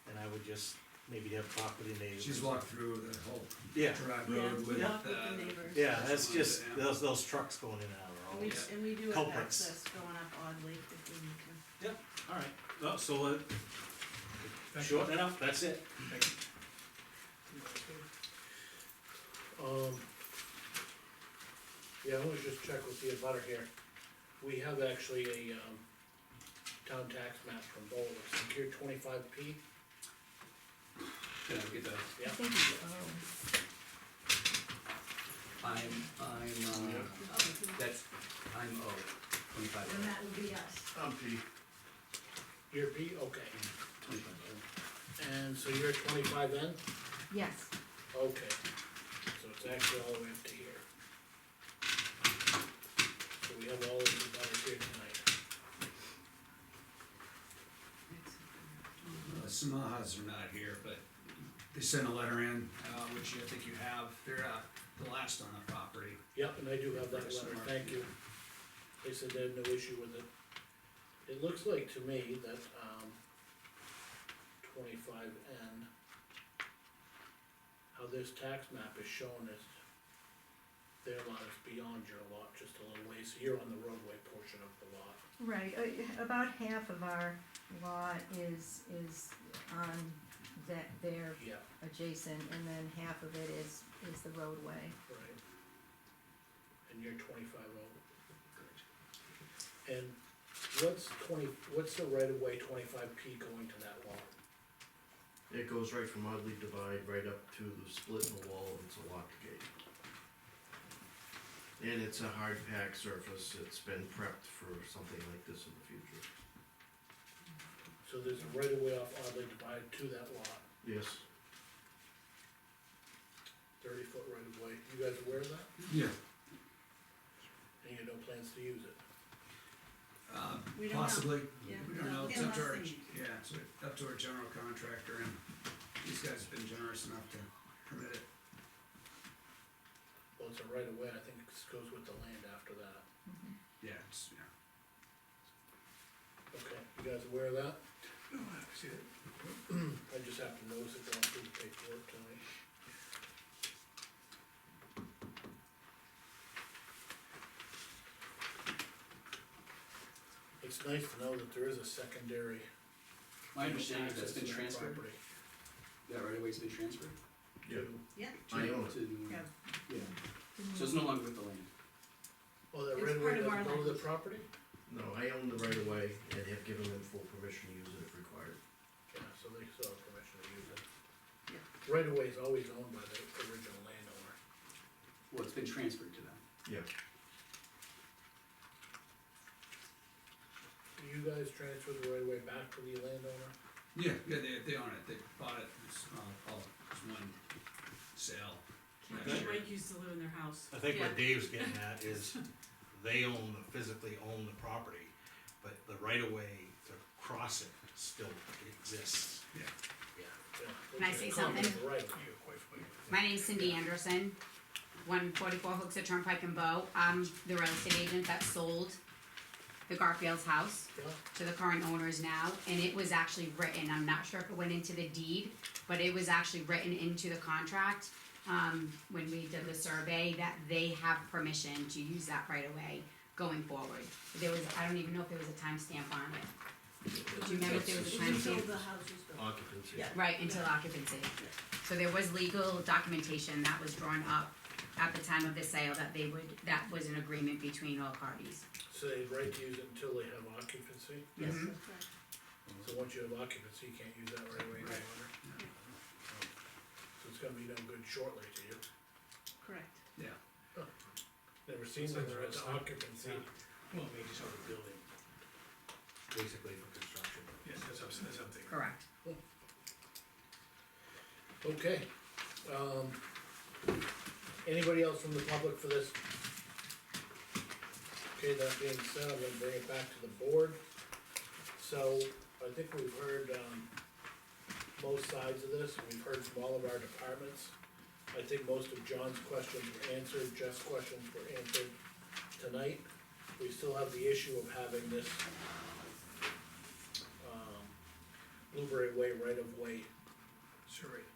just maybe have talk with your neighbors. She's walked through the whole Yeah, drive Yeah, road with, yeah, uh, with the neighbors. yeah, that's just, Yeah. those, those trucks going in and out are We, always, and we do have culprits. access going up oddly if we need to. alright, no, so, uh, shorten it up, that's it. Um, yeah, I wanna just check with the abutter here. We have actually a, um, town tax map from Boulder, secure twenty-five P. yeah, get that. I Yeah. think you, oh, I'm, I'm, uh, oh, that's, I'm O, twenty-five and O, that would be us. I'm P. You're P, okay, twenty-five O. and so you're twenty-five N, Yes. okay, so it's actually all the way up to here. So we have all of the abutters here tonight, Uh, Samahas are not here, but they sent a letter in, uh, which I think you have, they're, uh, the last on the property. yep, and I do have that Yes, letter, Mark. thank you. They said they have no issue with it. It looks like to me that, um, twenty-five N, how this tax map is shown is their lot is beyond your lot, just a little ways, you're on the roadway portion of the lot. Right, uh, about half of our lot is, is on that, there Yeah. adjacent, and then half of it is, is the roadway. Right. And you're twenty-five over. And what's twenty, what's the right of way twenty-five P going to that lot? It goes right from Oddly Divide right up to the split in the wall and it's a lock gate. And it's a hard pack surface, it's been prepped for something like this in the future. So there's a right of way off oddly divided to that lot, Yes, thirty foot right of way, you guys aware of that? Yeah. And you have no plans to use it? Uh, We don't know. possibly, Yeah. we don't know, it's Yeah, up to our, last thing. yeah, it's up to our general contractor, and these guys have been generous enough to permit it. Well, it's a right of way, I think it goes with the land after that, Yeah, it's, yeah. okay, you guys aware of that? Oh, No, I see it. I just have to notice it going through the paperwork tonight. It's nice to know that there is a secondary. My understanding is that's access to been that transferred, property, that right away's been transferred yeah, too. I own it. to, the- Yeah. yeah, so it's no longer with the land. Oh, that It's right part of away our doesn't go to the land. property? No, I own the right of way and have given them full permission to use it if required. Yeah, so they still have permission to use it. Yeah. Right away is always owned by the original landowner. Well, it's been transferred to them. Yeah. Do you guys transfer the right away back to the landowner? Yeah, yeah, they, they own it, they bought it, it's, uh, all, it's one sale. last Okay. year. Mike used to live in their house. I think Yeah. what Dave's getting at is they own, physically own the property, but the right of way to cross it still exists. Yeah. Yeah. Yeah, Can I it's say a common something? Right. My name's Cindy Anderson, one forty-four Hooksett Turnpike and Bow. I'm the real estate agent that sold the Garfield's house Yeah. to the current owners now, and it was actually written, I'm not sure if it went into the deed, but it was actually written into the contract, um, when we did the survey, that they have permission to use that right away going forward. There was, I don't even know if there was a timestamp on it. Do you remember if there was a Until timestamp? the house is built. Occupancy. Yeah. Right, until occupancy. So there was legal documentation that was drawn up at the time of the sale that they would, that was an agreement between all parties. So they have right to use it until they have occupancy, Yes, Mhm. that's right. so once you have occupancy, you can't use that Mm-hmm. right away any longer. So it's gonna be no good shortly to you, correct. never seen them, they're at occupancy. Well, maybe just on the building, Basically for construction. yes, that's up, that's up there. Correct. Okay, um, anybody else from the public for this? Okay, that being said, I'm gonna bring it back to the board. So, I think we've heard, um, both sides of this, we've heard from all of our departments. I think most of John's questions were answered, Jeff's questions were answered tonight. We still have the issue of having this, um, Blueberry Way right-of-way